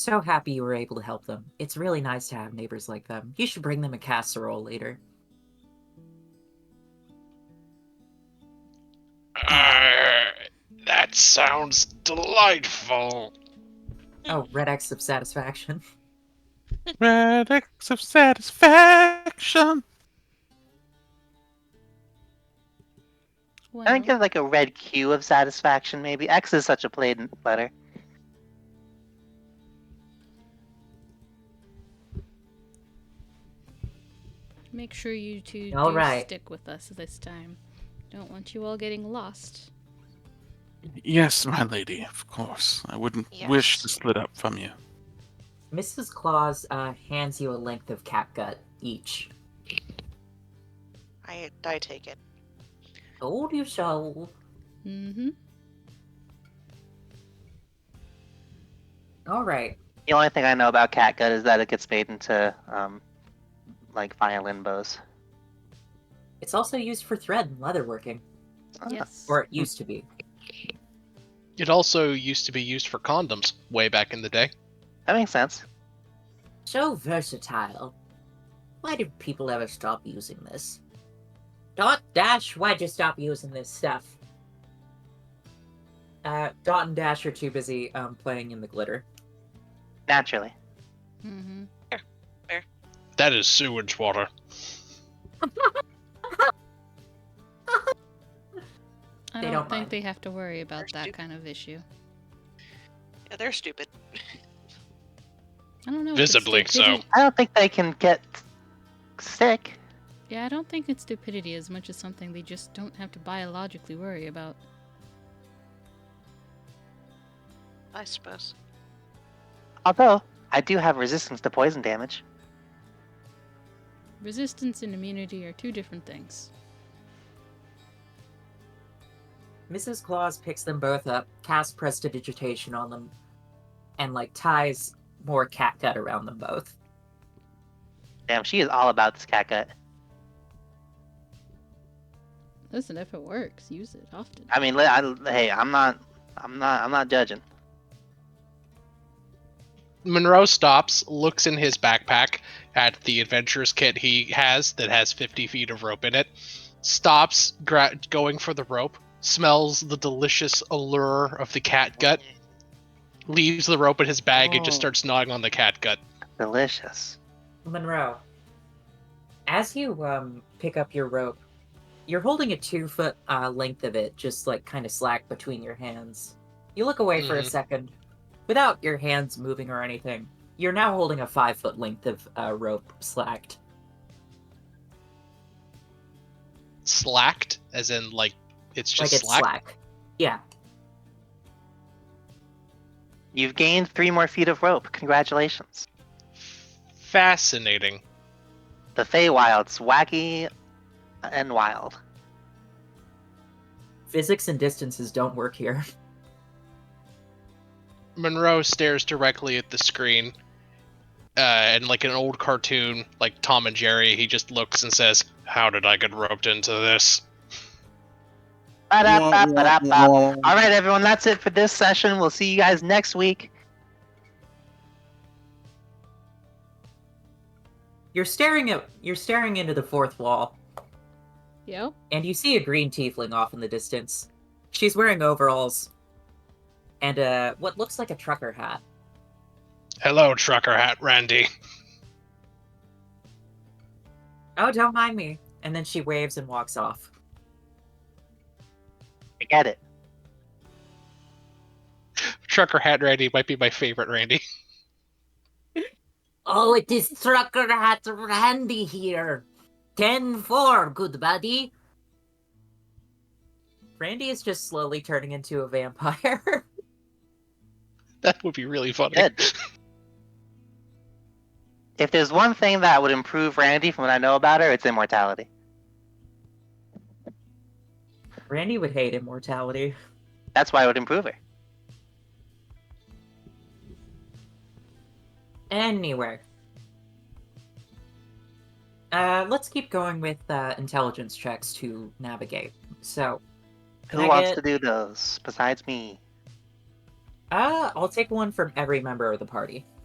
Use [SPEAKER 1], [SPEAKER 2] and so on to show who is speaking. [SPEAKER 1] So happy you were able to help them. It's really nice to have neighbors like them. You should bring them a casserole later.
[SPEAKER 2] Arr, Uh, that sounds delightful.
[SPEAKER 1] Oh, red X of satisfaction.
[SPEAKER 3] Red X of satisfaction.
[SPEAKER 4] I think
[SPEAKER 5] Well,
[SPEAKER 4] of like a red Q of satisfaction, maybe. X is such a plain letter.
[SPEAKER 5] make sure you two
[SPEAKER 1] All
[SPEAKER 5] do
[SPEAKER 1] right.
[SPEAKER 5] stick with us this time. Don't want you all getting lost.
[SPEAKER 3] Yes, my lady, of course. I wouldn't wish to
[SPEAKER 6] Yes.
[SPEAKER 3] split up from you.
[SPEAKER 1] Mrs. Claus uh, hands you a length of catgut each.
[SPEAKER 6] I I take it.
[SPEAKER 1] Told you so.
[SPEAKER 5] Mm-hmm.
[SPEAKER 1] All right.
[SPEAKER 4] The only thing I know about catgut is that it gets made into um, like violin bows.
[SPEAKER 1] It's also used for thread and leatherworking,
[SPEAKER 4] Ah,
[SPEAKER 5] Yes.
[SPEAKER 1] or it used to be.
[SPEAKER 2] It also used to be used for condoms way back in the day.
[SPEAKER 4] That makes sense.
[SPEAKER 1] So versatile. Why did people ever stop using this? Dot Dash, why'd you stop using this stuff? Uh, Dot and Dash are too busy um, playing in the glitter.
[SPEAKER 4] Naturally.
[SPEAKER 5] Mm-hmm.
[SPEAKER 2] That is sewage water.
[SPEAKER 5] I
[SPEAKER 1] They
[SPEAKER 5] don't,
[SPEAKER 1] don't
[SPEAKER 5] think
[SPEAKER 1] mind.
[SPEAKER 5] they have to worry about that
[SPEAKER 6] They're stupid.
[SPEAKER 5] kind of issue.
[SPEAKER 6] Yeah, they're stupid.
[SPEAKER 5] I don't know. if it's
[SPEAKER 2] Visibly so.
[SPEAKER 5] stupidity-
[SPEAKER 4] I don't think they can get sick.
[SPEAKER 5] Yeah, I don't think it's stupidity as much as something they just don't have to biologically worry about.
[SPEAKER 6] I suppose.
[SPEAKER 4] Although I do have resistance to poison damage.
[SPEAKER 5] Resistance and immunity are two different things.
[SPEAKER 1] Mrs. Claus picks them both up, casts prestidigitation on them, and like ties more catgut around them both.
[SPEAKER 4] Damn, she is all about this catgut.
[SPEAKER 5] Listen, if it works, use it often.
[SPEAKER 4] I mean, li- I, hey, I'm not, I'm not, I'm not judging.
[SPEAKER 2] Monroe stops, looks in his backpack at the adventurer's kit he has that has 50 feet of rope in it, stops gra- going for the rope, smells the delicious allure of the cat gut, leaves the rope in his bag, and just
[SPEAKER 4] Oh.
[SPEAKER 2] starts gnawing on the cat gut.
[SPEAKER 4] Delicious.
[SPEAKER 1] Monroe, as you um, pick up your rope, you're holding a two foot uh, length of it, just like kind of slack between your hands. You look away for a
[SPEAKER 2] Mhm.
[SPEAKER 1] second without your hands moving or anything. You're now holding a five foot length of uh, rope slacked.
[SPEAKER 2] Slacked, as in, like, it's just
[SPEAKER 1] like it's
[SPEAKER 2] slack.
[SPEAKER 1] slack. Yeah.
[SPEAKER 4] You've gained three more feet of rope. Congratulations.
[SPEAKER 2] Fascinating.
[SPEAKER 4] The Feywild's wacky and wild.
[SPEAKER 1] Physics and distances don't work here.
[SPEAKER 2] Monroe stares directly at the screen, uh, and like an old cartoon, like Tom and Jerry, he just looks and says, "How did I get roped into this?"
[SPEAKER 4] Ba-da-ba-ba-da-ba. All right, everyone, that's it for this session. We'll see you guys next week.
[SPEAKER 1] You're staring at you're staring into the fourth wall,
[SPEAKER 5] Yep.
[SPEAKER 1] and you see a green tiefling off in the distance. She's wearing overalls and uh what looks like a trucker hat.
[SPEAKER 2] Hello, trucker hat, Randy.
[SPEAKER 1] Oh, don't mind me. And then she waves and walks off.
[SPEAKER 4] I get it.
[SPEAKER 2] Trucker hat, Randy might be my favorite, Randy.
[SPEAKER 1] Oh, it is trucker hat Randy here. Ten four, good buddy. Randy is just slowly turning into a vampire.
[SPEAKER 2] That would be really funny.
[SPEAKER 4] Good. If there's one thing that would improve Randy from what I know about her, it's immortality.
[SPEAKER 1] Randy would hate immortality.
[SPEAKER 4] That's why it would improve her.
[SPEAKER 1] Anywhere. Uh, let's keep going with uh, intelligence checks to navigate. So,
[SPEAKER 4] Who
[SPEAKER 1] Can I
[SPEAKER 4] wants
[SPEAKER 1] get-
[SPEAKER 4] to do those besides me?
[SPEAKER 1] Uh, I'll take one from every member of the party.